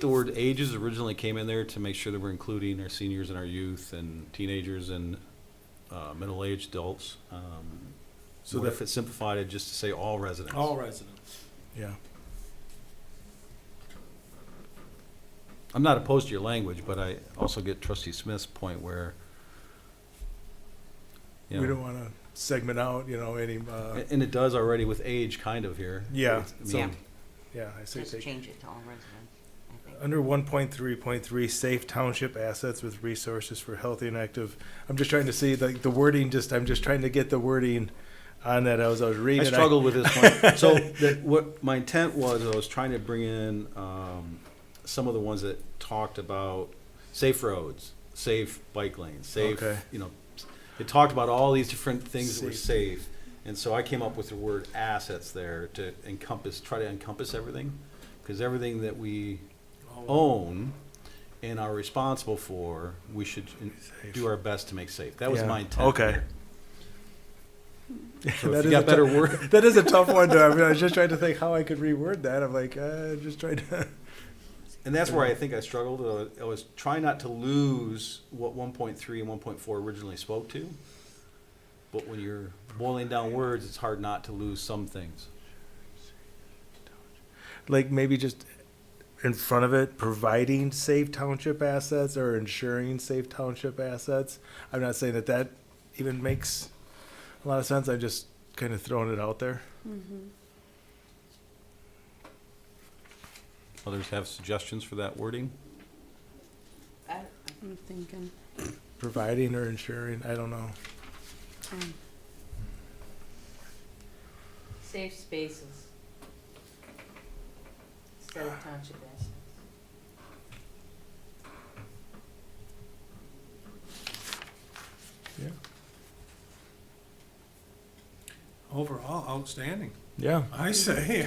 The word ages originally came in there to make sure that we're including our seniors and our youth and teenagers and uh, middle-aged adults. Um, So What that- if it simplified it just to say all residents? All residents. Yeah. I'm not opposed to your language, but I also get trustee Smith's point where, you We don't know, want to segment out, you know, any, uh, and it does already with age kind of here. Yeah, I so- mean, yeah, I say Just take. change it to all residents, I think. Under one point three point three, safe township assets with resources for healthy and active. I'm just trying to see like the wording, just, I'm just trying to get the wording on that. I was, I was I reading. it, struggled with this one. So the, what my intent was, I was trying to bring in um, some of the ones that talked about safe roads, safe bike lanes, safe, Okay. you know, it talked about all these different things that were Safe. safe. And so I came up with the word assets there to encompass, try to encompass everything, because everything that we own and are responsible for, we should in- Safe. do our best to make safe. That was Yeah. my intent. Okay. there. So That if you is a got better tou- word, That is a tough one though. I mean, I was just trying to think how I could reword that. I'm like, uh, just trying to. And that's where I think I struggled. I was- I was trying not to lose what 1.3 and 1.4 originally spoke to. But when you're boiling down words, it's hard not to lose some things. like maybe just in front of it providing safe township assets or ensuring safe township assets i'm not saying that that even makes a lot of sense i'm just kind of throwing it out there Others have suggestions for that wording. Uh, I- I'm thinking, providing or ensuring i don't know um, Safe spaces. Instead Ah. of township assets. yeah Overall, outstanding. yeah I say,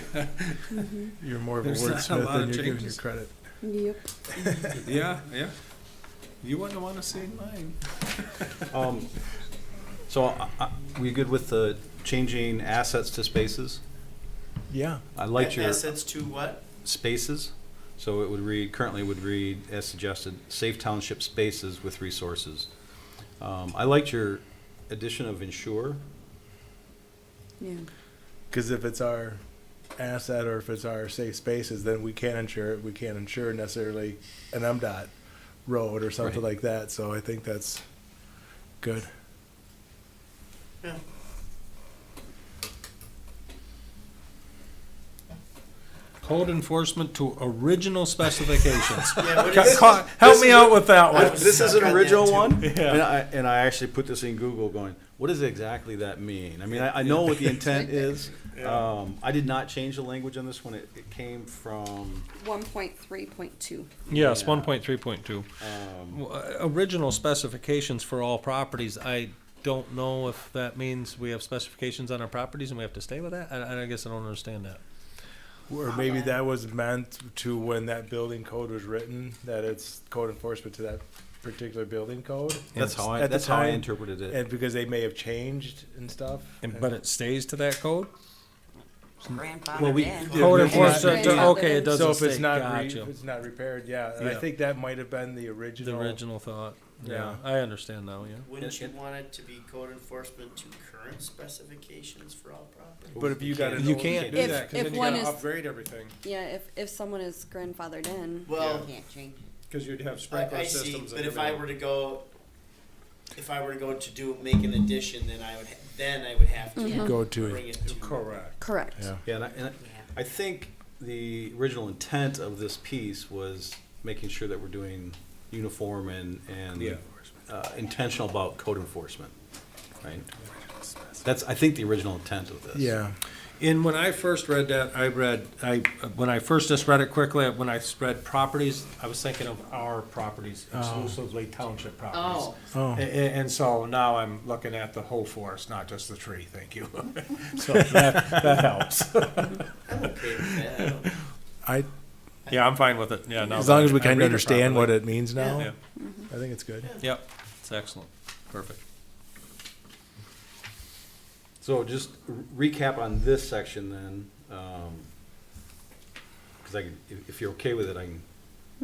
you're more of a There's not a wordsmith lot than of you're giving your changes. credit yep, yeah, yeah. You wouldn't want to see mine. Um, so, I, I, we good with the changing assets to spaces? yeah I liked your Assets E- to what? spaces. So it would read, currently would read, as suggested, safe township spaces with resources. Um, I liked your addition of ensure. yeah. because if it's our asset or if it's our safe spaces then we can't insure it we can't insure necessarily an mdot road or something Right. like that so i think that's good Yeah. Code enforcement to original specifications. Yeah, what is- help me out with Oh, that one. one. I was This is an stuck on that original too. one, and I, and I actually put this in Google going, what does exactly that mean? I mean, I, I know what the intent is. Um, I did not change the language on this one. It, it came from, One point three point two. Yeah. Yes, one point three point two. uh, um, Original specifications for all properties. I don't know if that means we have specifications on our properties and we have to stay with that. I, I guess I don't understand that. Or maybe that was meant to when that building code was written, that it's code enforcement to that particular building code. that's how I, At the that's how I time, interpreted it. And because they may have changed and stuff. And, but it stays to that code. Well, we- Grandfathered in. Yeah, Code it's not- enforcement. Yeah. Okay, it doesn't So if stay. it's not, re- Gotcha. if it's not repaired, yeah, and I Yeah. think that might have been the The original. original thought. Yeah. Yeah, I understand now, yeah. Wouldn't you want it to be code enforcement to current specifications for all property? But if you got an You old- can't If- do that, if cause then you one gotta is- upgrade everything, Yeah, if, if someone is grandfathered in, Well, Can't change it. cause you'd have I, sprinkler I see, systems and but if I everything. were to go, if I were to go to do, make an addition, then I would, ha- then I would have to Mhm. Go to it. bring it to. Correct. correct. Yeah. Yeah, and I, and I- Yeah. I think the original intent of this piece was making sure that we're doing uniform and, and uh, intentional about code enforcement, right? That's, I think, the original intent of this. Yeah, And when I first read that, I read, I, when I first just read it quickly, when I read properties, I was thinking of our properties, exclusively township properties. Oh, oh, And, and so now I'm looking at the whole forest, not just the tree, thank you. So that, that helps. I'm okay with that. I don't- I, Yeah, I'm fine with it, yeah, no. as long as we I kind read of it understand what properly. it means now, Yeah, I think it's good. yep, it's excellent, perfect. So just re- recap on this section then, um, cause I can, if, if you're okay with it, I can